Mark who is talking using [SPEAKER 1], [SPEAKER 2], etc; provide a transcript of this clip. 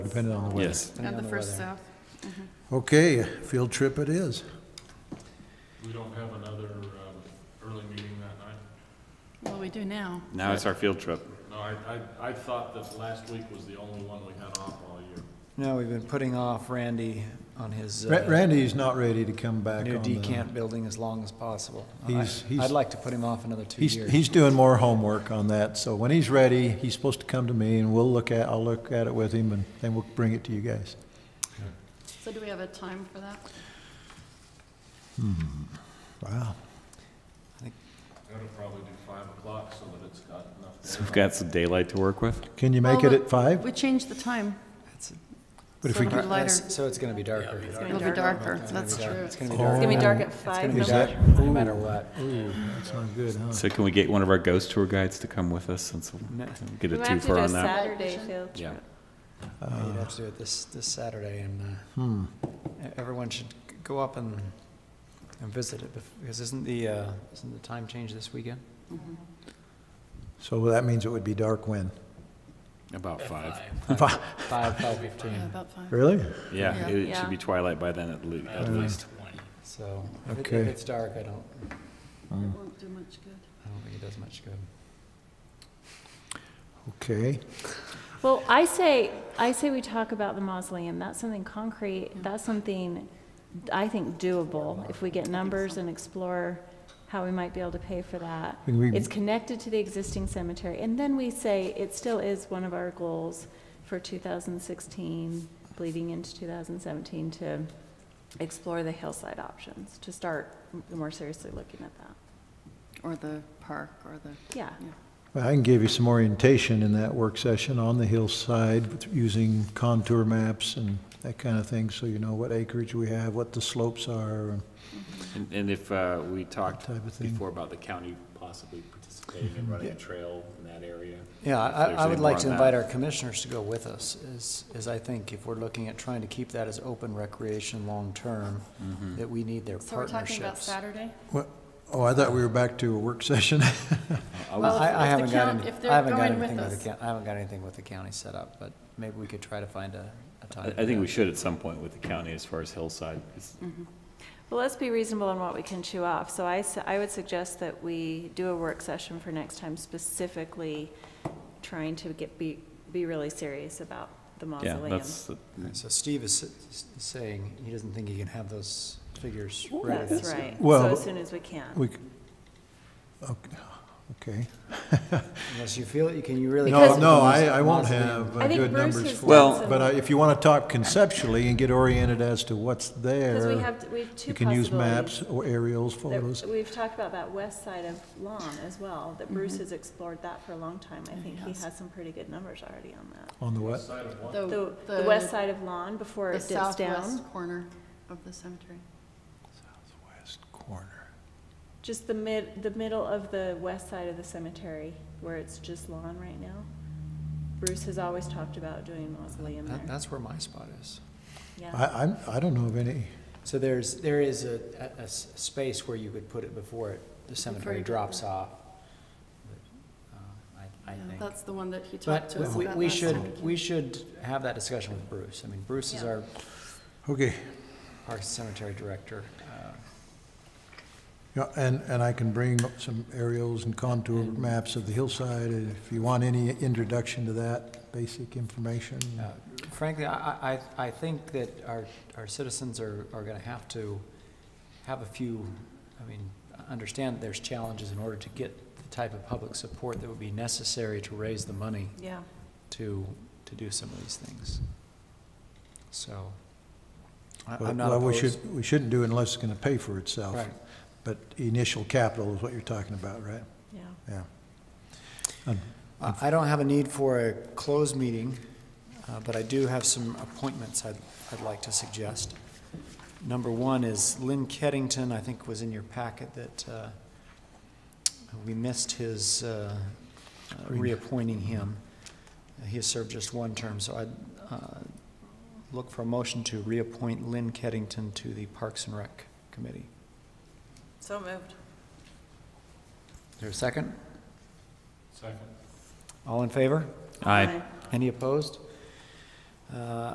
[SPEAKER 1] depending on the weather.
[SPEAKER 2] Yes.
[SPEAKER 3] Of the first south.
[SPEAKER 1] Okay, field trip it is.
[SPEAKER 4] We don't have another um, early meeting that night?
[SPEAKER 3] Well, we do now.
[SPEAKER 2] Now it's our field trip.
[SPEAKER 4] No, I, I, I thought that last week was the only one we had off all year.
[SPEAKER 5] No, we've been putting off Randy on his
[SPEAKER 1] Ra-
[SPEAKER 5] uh,
[SPEAKER 1] Randy's not ready to come back
[SPEAKER 5] new
[SPEAKER 1] on the,
[SPEAKER 5] decant building as long as possible. I-
[SPEAKER 1] He's- he's-
[SPEAKER 5] I'd like to put him off another two
[SPEAKER 1] he's,
[SPEAKER 5] years.
[SPEAKER 1] he's doing more homework on that, so when he's ready, he's supposed to come to me and we'll look at, I'll look at it with him and then we'll bring it to you guys.
[SPEAKER 3] So do we have a time for that?
[SPEAKER 1] Wow.
[SPEAKER 4] That'll probably do five o'clock so that it's got enough.
[SPEAKER 2] So
[SPEAKER 4] daylight.
[SPEAKER 2] we've got some daylight to work with.
[SPEAKER 1] Can you make it
[SPEAKER 3] Well,
[SPEAKER 1] at five?
[SPEAKER 3] We changed the time.
[SPEAKER 5] That's-
[SPEAKER 1] But if we,
[SPEAKER 3] Sort of
[SPEAKER 1] get-
[SPEAKER 3] a- lighter.
[SPEAKER 5] So it's gonna be darker.
[SPEAKER 3] It's going to be darker. That's true.
[SPEAKER 5] It's gonna be
[SPEAKER 6] It's
[SPEAKER 5] darker,
[SPEAKER 6] gonna be dark at
[SPEAKER 5] gonna
[SPEAKER 6] five.
[SPEAKER 5] be
[SPEAKER 6] no
[SPEAKER 1] is that,
[SPEAKER 6] matter-
[SPEAKER 5] no matter what.
[SPEAKER 1] ooh, that's not good, huh?
[SPEAKER 2] So can we get one of our ghost tour guides to come with us since we'll get
[SPEAKER 6] We
[SPEAKER 2] a
[SPEAKER 6] might have
[SPEAKER 2] twofer
[SPEAKER 6] to do a
[SPEAKER 2] on that?
[SPEAKER 6] Saturday field
[SPEAKER 2] Yeah.
[SPEAKER 6] trip.
[SPEAKER 5] Yeah, You'd have to do it this, this Saturday, and uh,
[SPEAKER 1] Hmm.
[SPEAKER 5] e- everyone should g- go up and, and visit it, bef- because isn't the, uh, isn't the time change this weekend?
[SPEAKER 1] So that means it would be dark when?
[SPEAKER 2] About five.
[SPEAKER 5] Five, five fifteen,
[SPEAKER 3] Yeah, about five.
[SPEAKER 1] Really?
[SPEAKER 2] Yeah,
[SPEAKER 3] Yeah.
[SPEAKER 2] it
[SPEAKER 6] Yeah.
[SPEAKER 2] should be twilight by then at le- at least.
[SPEAKER 5] so if it- if
[SPEAKER 1] Hmm. Okay.
[SPEAKER 5] it's dark, I don't,
[SPEAKER 3] It won't do much good.
[SPEAKER 5] I don't think it does much good.
[SPEAKER 1] Okay.
[SPEAKER 6] Well, I say, I say we talk about the mausoleum. That's something concrete. That's something I think doable. If we get numbers and explore how we might be able to pay for that.
[SPEAKER 1] Can we-
[SPEAKER 6] It's connected to the existing cemetery. And then we say it still is one of our goals for 2016, bleeding into 2017, to explore the hillside options, to start more seriously looking at that.
[SPEAKER 3] Or the park or the,
[SPEAKER 6] Yeah.
[SPEAKER 3] yeah.
[SPEAKER 1] Well, I can give you some orientation in that work session on the hillside with- using contour maps and that kind of thing, so you know what acreage we have, what the slopes are.
[SPEAKER 2] And- And if uh, we talked
[SPEAKER 1] Type of thing.
[SPEAKER 2] before about the county possibly participating and running a trail in that area.
[SPEAKER 5] Yeah,
[SPEAKER 2] If there's
[SPEAKER 5] I, I
[SPEAKER 2] any
[SPEAKER 5] would
[SPEAKER 2] more
[SPEAKER 5] like
[SPEAKER 2] on
[SPEAKER 5] to
[SPEAKER 2] that.
[SPEAKER 5] invite our commissioners to go with us, is, is I think if we're looking at trying to keep that as open recreation long-term,
[SPEAKER 2] Mm-hmm.
[SPEAKER 5] that we need their
[SPEAKER 3] So we're talking about
[SPEAKER 5] partnerships.
[SPEAKER 3] Saturday?
[SPEAKER 1] What, oh, I thought we were back to a work session.
[SPEAKER 2] I
[SPEAKER 3] Well, if-
[SPEAKER 5] I, I
[SPEAKER 3] if the
[SPEAKER 5] haven't got,
[SPEAKER 3] count-
[SPEAKER 5] any-
[SPEAKER 3] if they're
[SPEAKER 5] I haven't got
[SPEAKER 3] going with
[SPEAKER 5] anything with
[SPEAKER 3] us.
[SPEAKER 5] the, coun- I haven't got anything with the county set up, but maybe we could try to find a, a
[SPEAKER 2] I-
[SPEAKER 5] time.
[SPEAKER 2] I think we should at some point with the county as far as hillside. It's-
[SPEAKER 6] Mm-hmm. Well, let's be reasonable on what we can chew off. So I, s- I would suggest that we do a work session for next time specifically trying to get, be, be really serious about the
[SPEAKER 2] Yeah,
[SPEAKER 6] mausoleum.
[SPEAKER 2] that's,
[SPEAKER 5] So Steve is s- s- saying he doesn't think he can have those figures ready.
[SPEAKER 6] That's right. So
[SPEAKER 1] Well-
[SPEAKER 6] as soon as we can.
[SPEAKER 1] We, c- okay, okay.
[SPEAKER 5] Unless you feel, it, can you really?
[SPEAKER 1] No,
[SPEAKER 6] Because-
[SPEAKER 1] no, I, I won't
[SPEAKER 5] Mausoleum.
[SPEAKER 1] have uh,
[SPEAKER 6] I think
[SPEAKER 1] good
[SPEAKER 6] Bruce
[SPEAKER 1] numbers
[SPEAKER 6] has
[SPEAKER 1] for
[SPEAKER 2] Well-
[SPEAKER 6] done
[SPEAKER 1] it,
[SPEAKER 6] some-
[SPEAKER 1] but I- if you want to talk conceptually and get oriented as to what's there.
[SPEAKER 6] Because we have, we have two
[SPEAKER 1] You can use maps
[SPEAKER 6] possibilities.
[SPEAKER 1] or aerials, photos.
[SPEAKER 6] There- We've talked about that west side of Lon as well, that Bruce
[SPEAKER 2] Mm-hmm.
[SPEAKER 6] has explored that for a long time.
[SPEAKER 2] Oh,
[SPEAKER 6] I think he
[SPEAKER 3] has.
[SPEAKER 6] has some pretty good numbers already on that.
[SPEAKER 1] On the what?
[SPEAKER 6] The, the west side of Lon before
[SPEAKER 3] Oh, The
[SPEAKER 6] it dips down,
[SPEAKER 3] southwest corner of the cemetery.
[SPEAKER 1] Southwest corner.
[SPEAKER 6] just the mid, the middle of the west side of the cemetery where it's just lawn right now. Bruce has always talked about doing mausoleum
[SPEAKER 5] That-
[SPEAKER 6] there.
[SPEAKER 5] That's where my spot is.
[SPEAKER 6] Yeah,
[SPEAKER 1] I, I'm, I don't know of any.
[SPEAKER 5] So there's, there is a, a- a s- space where you could put it before it- the cemetery
[SPEAKER 3] you-
[SPEAKER 5] drops off. But, uh, I, I
[SPEAKER 3] Yeah,
[SPEAKER 5] think.
[SPEAKER 3] That's the one that he talked
[SPEAKER 5] But
[SPEAKER 3] to us
[SPEAKER 5] we,
[SPEAKER 3] about
[SPEAKER 5] we
[SPEAKER 3] last
[SPEAKER 5] should,
[SPEAKER 3] week.
[SPEAKER 5] we should have that discussion with Bruce. I mean, Bruce is
[SPEAKER 6] Yeah.
[SPEAKER 5] our
[SPEAKER 1] Okay,
[SPEAKER 5] Parks and Cemetery Director. uh,
[SPEAKER 1] yeah, and, and I can bring up some aerials and contour maps of the hillside and if you want any introduction to that, basic information.
[SPEAKER 5] Uh, Frankly, I, I, I think that our, our citizens are, are gonna have to have a few, I mean, understand that there's challenges in order to get the type of public support that would be necessary to raise the money
[SPEAKER 6] yeah.
[SPEAKER 5] to, to do some of these things. So, I-
[SPEAKER 1] Well,
[SPEAKER 5] I'm not
[SPEAKER 1] We
[SPEAKER 5] opposed.
[SPEAKER 1] should, we shouldn't do unless it's gonna pay for itself.
[SPEAKER 5] Right.
[SPEAKER 1] But initial capital is what you're talking about, right?
[SPEAKER 6] Yeah.
[SPEAKER 1] Yeah.
[SPEAKER 5] I I don't have a need for a closed meeting, uh, but I do have some appointments I'd, I'd like to suggest. Number one is Lynn Keddington, I think was in your packet that uh, we missed his uh, uh, reappointing him. Uh, He has served just one term, so I'd uh, look for a motion to reappoint Lynn Keddington to the Parks and Rec Committee.
[SPEAKER 6] So moved.
[SPEAKER 5] Is there a second?
[SPEAKER 4] Second.
[SPEAKER 5] All in favor?
[SPEAKER 2] I,
[SPEAKER 5] Any opposed? Uh, Uh,